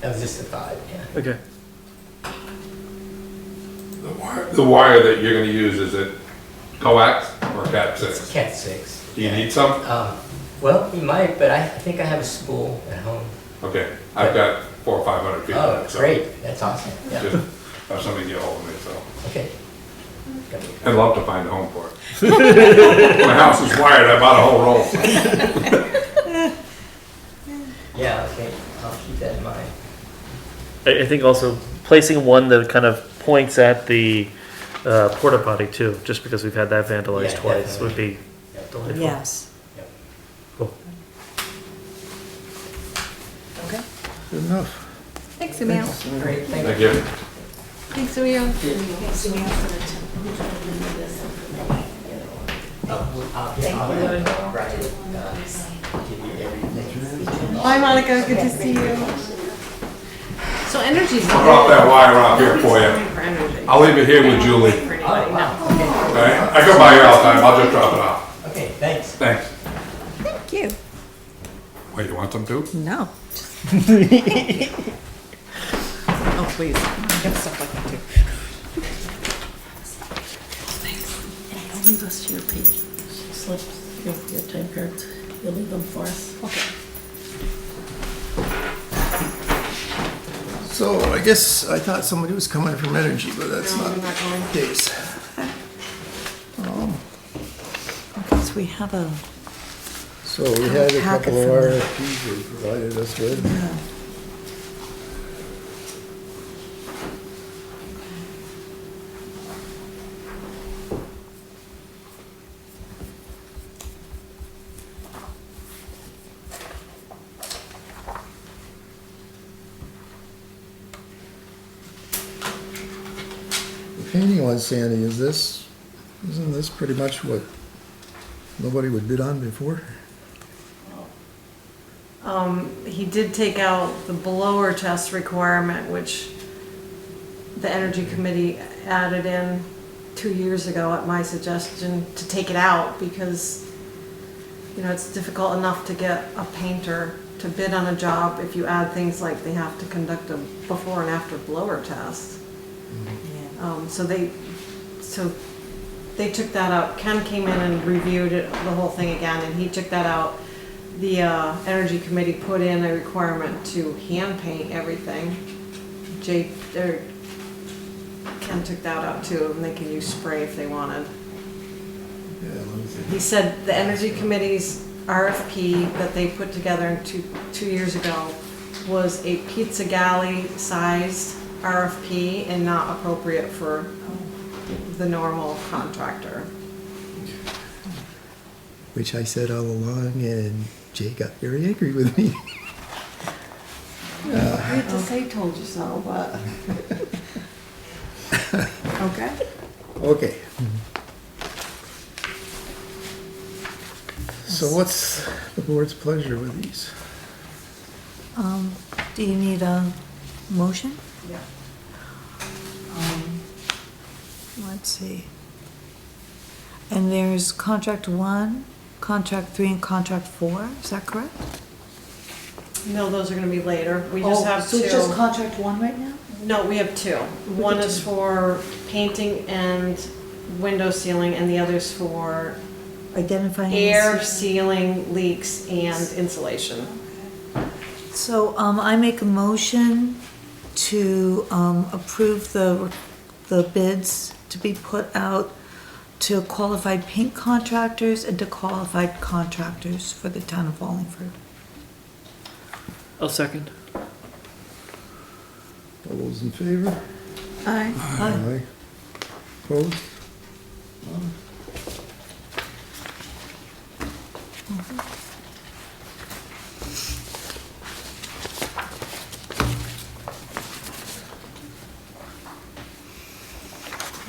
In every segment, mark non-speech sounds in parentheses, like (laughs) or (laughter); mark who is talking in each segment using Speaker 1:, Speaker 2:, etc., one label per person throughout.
Speaker 1: That was just a thought, yeah.
Speaker 2: Okay.
Speaker 3: The wire, the wire that you're gonna use, is it coax or cat
Speaker 1: It's
Speaker 3: six?
Speaker 1: cat six.
Speaker 3: Do you need some?
Speaker 1: Um, well, you might, but I think I have a spool at home.
Speaker 3: Okay, I've got four or five hundred feet.
Speaker 1: Oh,
Speaker 3: so
Speaker 1: great, that's awesome, yeah,
Speaker 3: Just have somebody get hold of me, so.
Speaker 1: okay.
Speaker 3: I'd love to find a home for it. (laughs) My house is wired, I bought a whole roll.
Speaker 1: Yeah, okay, I'll keep that in mind.
Speaker 2: I, I think also placing one that kind of points at the uh, porta potty too, just because we've had that vandalized
Speaker 1: Yeah,
Speaker 2: twice would be
Speaker 1: Yep.
Speaker 2: delightful.
Speaker 4: Yes.
Speaker 1: Yep.
Speaker 2: Cool.
Speaker 4: Okay.
Speaker 5: Good enough.
Speaker 6: Thanks, Emil.
Speaker 1: Great, thank you.
Speaker 3: Thank you.
Speaker 6: Thanks, Emil.
Speaker 1: Oh, I'll- I'll have Brian, uh, give you everything.
Speaker 6: Bye, Monica. Good to see you.
Speaker 7: So energy's.
Speaker 3: I'll drop that wire off here for you.
Speaker 7: For energy.
Speaker 3: I'll leave it here with Julie,
Speaker 7: For
Speaker 1: Oh,
Speaker 7: anybody, no.
Speaker 1: wow,
Speaker 3: all right? I go by here all the time, I'll just drop it off.
Speaker 1: okay, okay, thanks.
Speaker 3: Thanks.
Speaker 4: Thank you.
Speaker 3: Wait, you want some too?
Speaker 4: No. oh, please. I have stuff like that too.
Speaker 7: Thanks. I'll leave us to your page. Slips, your, your time cards, you'll leave them for us. Okay.
Speaker 5: So I guess I thought somebody was coming from energy, but that's not the case. Um,
Speaker 4: Okay, so we have a,
Speaker 5: So we had a
Speaker 4: Packet
Speaker 5: couple of
Speaker 4: from the-
Speaker 5: RFPs they provided us with.
Speaker 4: uh,
Speaker 5: The painting one, Sandy, is this, isn't this pretty much what nobody would bid on before?
Speaker 7: Um, he did take out the blower test requirement, which the energy committee added in two years ago at my suggestion to take it out because, you know, it's difficult enough to get a painter to bid on a job if you add things like they have to conduct a before and after blower test.
Speaker 4: yeah.
Speaker 7: Um, so they, so they took that out. Ken came in and reviewed it, the whole thing again, and he took that out. The, uh, energy committee put in a requirement to hand paint everything. Jay, or Ken took that out too, and they can use spray if they wanted.
Speaker 5: Yeah, let me see.
Speaker 7: He said the energy committee's RFP that they put together in two, two years ago was a pizza galley sized RFP and not appropriate for the normal contractor.
Speaker 5: Which I said all along, and Jay got very angry with me. (laughs)
Speaker 7: I hate to say told you so, but.
Speaker 4: Okay.
Speaker 5: Okay. So what's the board's pleasure with these?
Speaker 4: Um, do you need a motion?
Speaker 1: Yeah.
Speaker 4: Um, Let's see. And there's contract one, contract three, and contract four, is that correct?
Speaker 7: No, those are gonna be later. We just
Speaker 4: Oh,
Speaker 7: have
Speaker 4: So it's just
Speaker 7: two.
Speaker 4: contract one right now?
Speaker 7: No, we have two. One is for painting and window sealing and the other's for
Speaker 4: Identifying.
Speaker 7: air
Speaker 4: incidents.
Speaker 7: sealing leaks and insulation.
Speaker 4: So um, I make a motion to um, approve the, the bids to be put out to qualified paint contractors and to qualified contractors for the town of Wallingford.
Speaker 2: I'll second.
Speaker 5: All those in favor?
Speaker 4: Aye.
Speaker 5: Aye. Opposed?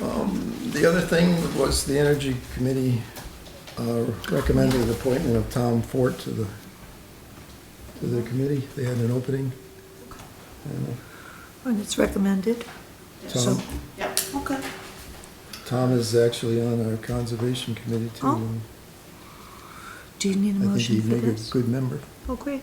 Speaker 5: Um, The other thing was the Energy Committee uh, recommended the appointment of Tom Fort to the, to the committee. They had an opening.
Speaker 4: And it's recommended. So-
Speaker 5: Tom,
Speaker 7: Yep.
Speaker 4: Okay.
Speaker 5: Tom is actually on our Conservation Committee too.
Speaker 4: Oh. Do you need a
Speaker 5: I think
Speaker 4: motion
Speaker 5: he'd
Speaker 4: for
Speaker 5: make a
Speaker 4: this?
Speaker 5: good member.
Speaker 4: Oh, great.